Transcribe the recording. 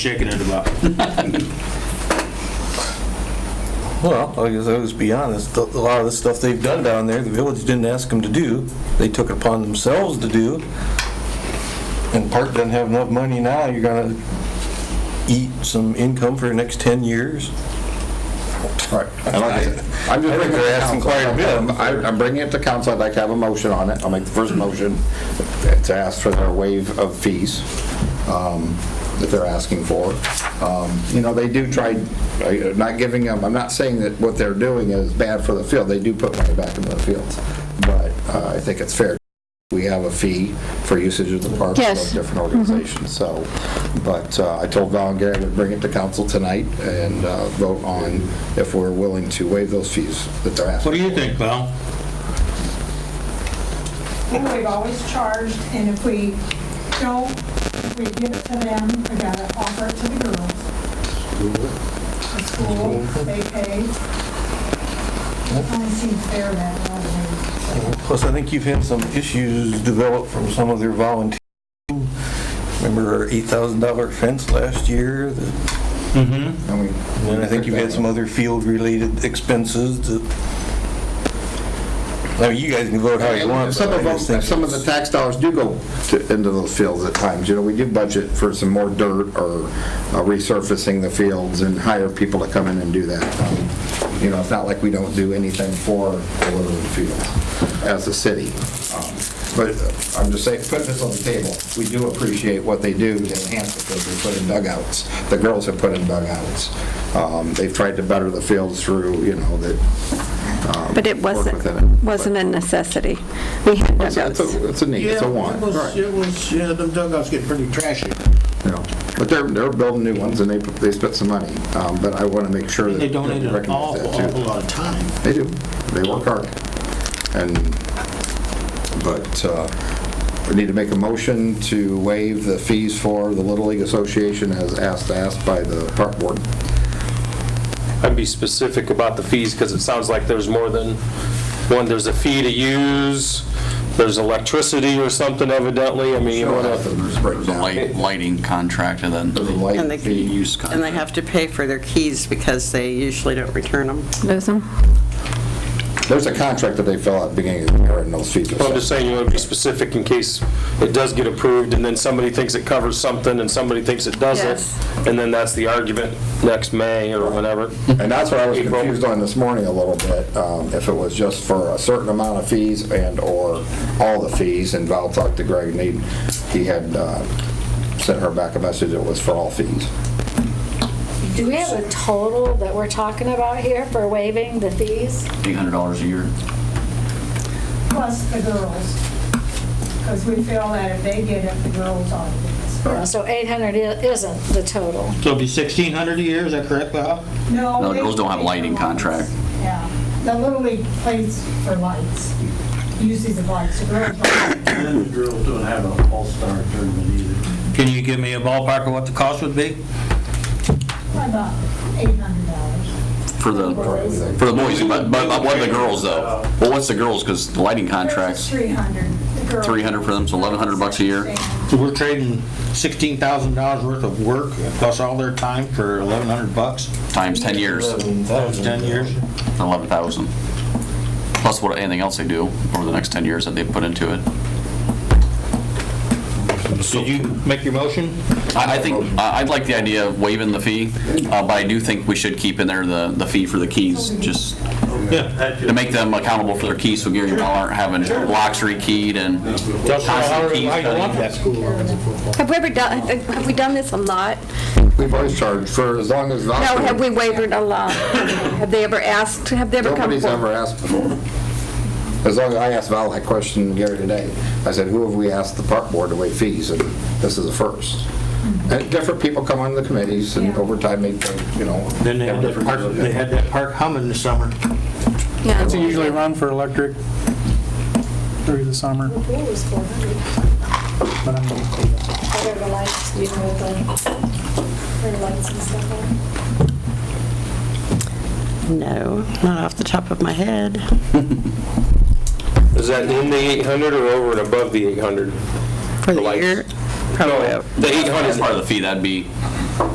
shaking it about. Well, like I said, let's be honest, a lot of the stuff they've done down there, the village didn't ask them to do. They took it upon themselves to do. And Park doesn't have enough money now, you're gonna eat some income for the next 10 years. Right. And like I said, I'm just I think bringing it they're to asking council. quite a bit. I- I'm bringing it to council, I'd like to have a motion on it. I'll make the first motion to ask for their waive of fees um, that they're asking for. Um, You know, they do try, I- not giving them, I'm not saying that what they're doing is bad for the field, they do put money back into the fields, but uh, I think it's fair. We have a fee for usage of the parks Yes. of different organizations, so, but uh, I told Val and Gary I would bring it to council tonight and uh, vote on if we're willing to waive those fees that they're asking. What do you think, Val? think we've always charged, and if we don't, we give it to them, we gotta offer it to the girls. The school, they pay. Only seems fair that way. Plus, I think you've had some issues develop from some of their volunteers. Remember our $8,000 fence last year? And And we- I think you've had some other field-related expenses that, I mean, you guys can vote how Oh, you want. Some but I of, them- just think some of it's- the tax dollars do go to- into those fields at times, you know, we do budget for some more dirt or uh, resurfacing the fields and hire people to come in and do that. Um, You know, it's not like we don't do anything for the Little Fields as a city. Um, But I'm just saying, putting this on the table, we do appreciate what they do to enhance the fields, they put in dugouts, the girls have put in dugouts. Um, They've tried to better the fields through, you know, that. um, But it work wasn't, within it. wasn't a necessity. We had It's a- It's dugouts. a, it's a need, it's a want. It was, Right. it was, yeah, them dugouts get pretty trashy. You know, But they're, they're building new ones and they, put- they spent some money, um, but I want to make sure that. They donated that we an recognize awful, that too. awful lot of time. They do, they work hard. And, but uh, we need to make a motion to waive the fees for the Little League Association as asked, asked by the park board. I'd be specific about the fees, because it sounds like there's more than one, there's a fee to use, there's electricity or something evidently, I mean, you wanna, There's The light, lighting contractor then. There's a And light they- fee. Use And they contract. have to pay for their keys because they usually don't return them. Lose 'em. There's a contract that they fill out at the beginning of the year and those fees are. But I'm just saying, you wanna be specific in case it does get approved, and then somebody thinks it covers something, and somebody thinks it Yes. doesn't, and then that's the argument next May or whenever. And that's what I was April. confused on this morning a little bit, um, if it was just for a certain amount of fees and/or all the fees, and Val talked to Greg, and he, he had uh, sent her back a message, it was for all fees. Do we have a total that we're talking about here for waiving the fees? $800 a year. Plus the girls, because we feel that if they get it, the girls ought to get it. So 800 i- isn't the total. So it'd be 1,600 a year, is that correct, Val? No, No, they girls don't have pay for lighting lights. contract. Yeah, the Little League plays for lights, uses the lights, the girls don't. And the girls don't have an all-star tournament either. Can you give me a ballpark of what the cost would be? about $800. For the, for the boys, but, but but what are the girls though? Well, what's the girls, because the lighting It's contracts, 300. The girl- 300 for them, so 1,100 bucks a year? So we're trading $16,000 worth of work plus all their time for 1,100 bucks, times 10 years, 10 years? 11,000. Plus what, anything else they do over the next 10 years that they put into it. Did you make your motion? I, I think, I- I'd like the idea of waiving the fee, uh, but I do think we should keep in there the, the fee for the keys, just to make them accountable for their keys, so Gary and Paul aren't having locks rekeyed and Just constant keys. how you want cutting. that. Have we ever done, have have we done this a lot? We've always charged for as long as Val. No, have we wavered a lot? Have they ever asked, have they ever come Nobody's forward? ever asked before. As long as, I asked Val that question Gary today, I said, who have we asked the park board to waive fees, and this is the first. And different people come on the committees, and over time, they, you know. Then they have had that different. park, they had that park humming this summer. Yeah. usually run for electric through the summer. Pool was 400. But I'm, Other the lights, you know, the, their lights and stuff on. No, not off the top of my head. Is that in the 800 or over and above the 800? For the Lights. year, No, probably. The 800 That's part of the fee, that'd be